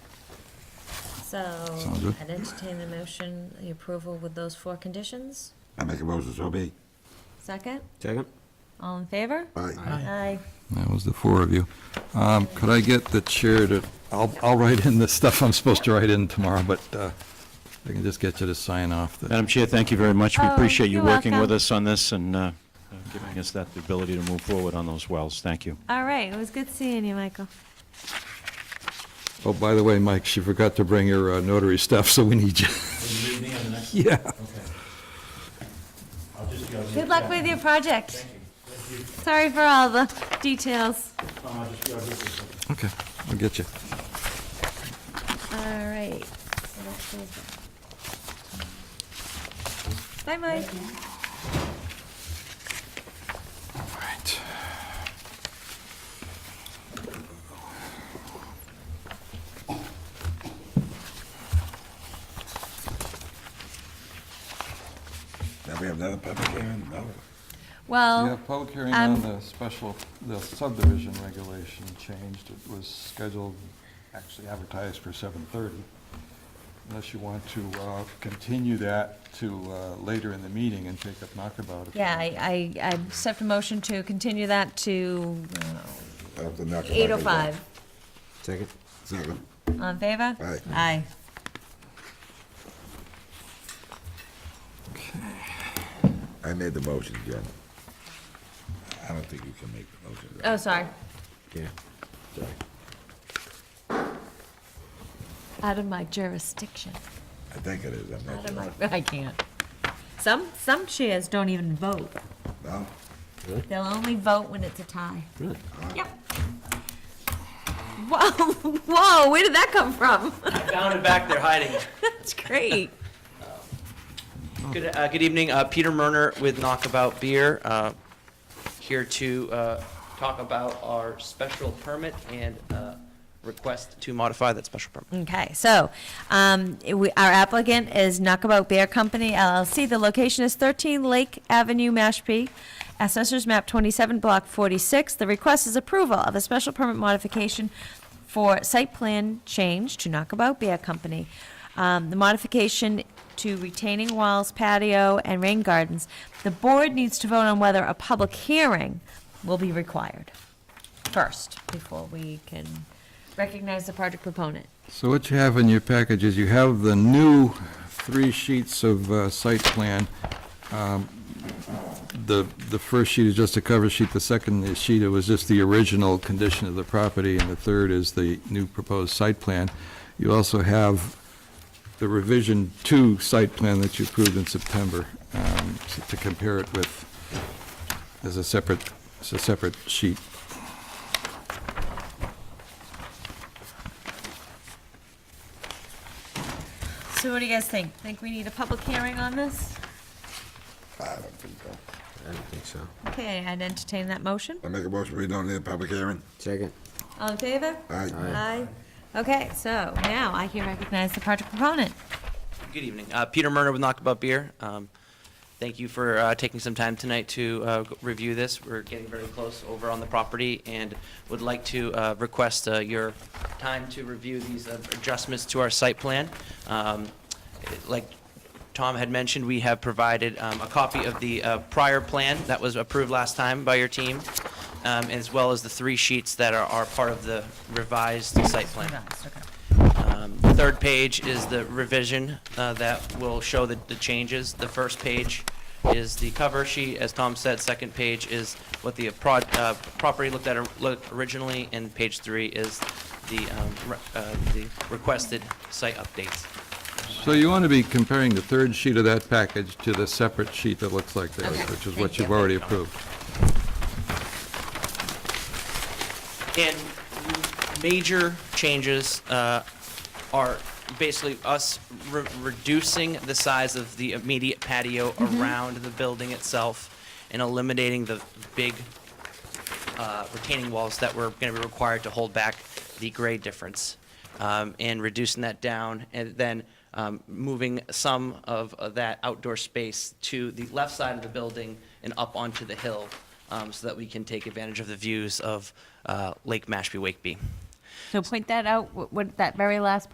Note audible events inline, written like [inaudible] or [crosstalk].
So Sounds good. I'd entertain the motion, the approval with those four conditions. I make a motion, so be. Second, Second? all in favor? Aye. Aye. That was the four of you. Um, Could I get the chair to, I'll, I'll write in the stuff I'm supposed to write in tomorrow, but uh, if I can just get you to sign off. the- Madam Chair, thank you very much. We Oh, appreciate you you're working with welcome. us on this and uh, giving us that ability to move forward on those wells. Thank you. All right, it was good seeing you, Michael. Oh, by the way, Mike, she forgot to bring her uh, notary stuff, so we need you. Yeah. Good luck with your project. Sorry for all the details. Okay, I'll get you. All right. so that's it. Bye, Mike. All right. Now we have another public hearing, no? We Well, have public hearing Um, on the special, the subdivision regulation changed. It was scheduled, actually advertised for 7:30. Unless you want to uh, continue that to uh, later in the meeting and take up knockabout. if you yeah, want. I, I I accept a motion to continue that to I have to knock it back. eight oh five. Second? Second. All in favor? Aye. Aye. I made the motion, Jen. I don't think you can make the motion. Oh, sorry. Yeah. Out of my jurisdiction. I think it is, I'm Out not of my, sure. [laughs] I can't. Some, some chairs don't even vote. No? They'll only vote when it's a tie. Really? Yep. Whoa, [laughs] whoa, where did that come from? [laughs] Down and back, they're hiding. That's great. Good, uh, good evening, uh, Peter Murner with Knockabout Beer, uh, here to, uh, talk about our special permit and, uh, request to modify that special permit. Okay, so, um, it- we, our applicant is Knockabout Beer Company LLC. The location is thirteen Lake Avenue, Mashpee. Assessors map twenty-seven, block forty-six. The request is approval of a special permit modification for site plan change to Knockabout Beer Company. Um, the modification to retaining walls, patio, and rain gardens. The board needs to vote on whether a public hearing will be required first, before we can recognize the project proponent. So what you have in your package is you have the new three sheets of uh, site plan. Um, The, the first sheet is just a cover sheet, the second sheet, it was just the original condition of the property, and the third is the new proposed site plan. You also have the revision two site plan that you approved in September, um, s- to compare it with, as a separate, as a separate sheet. So what do you guys think? Think we need a public hearing on this? I don't think so. I don't think so. Okay, I'd entertain that motion. I make a motion, we don't need a public hearing? Second? All in favor? Aye. Aye. Okay, so now I can recognize the project proponent. Good evening, uh, Peter Murner with Knockabout Beer. Um, thank you for, uh, taking some time tonight to, uh, go- review this. We're getting very close over on the property and would like to, uh, request, uh, your time to review these uh, adjustments to our site plan. Um, like Tom had mentioned, we have provided um, a copy of the uh, prior plan that was approved last time by your team, um, as well as the three sheets that are, are part of the revised site plan. Um, The third page is the revision uh, that will show the, the changes. The first page is the cover sheet, as Tom said. Second page is what the pro- uh, property looked at or- looked originally, and page three is the, um, re- uh, the requested site updates. So you want to be comparing the third sheet of that package to the separate sheet that looks like this, which is what you've already approved. And major changes uh, are basically us re- reducing the size of the immediate patio around the building itself and eliminating the big uh, retaining walls that were going to be required to hold back the grade difference um, and reducing that down and then um, moving some of uh, that outdoor space to the left side of the building and up onto the hill um, so that we can take advantage of the views of uh, Lake Mashpee Wakeby. So point that out, what, what, that very last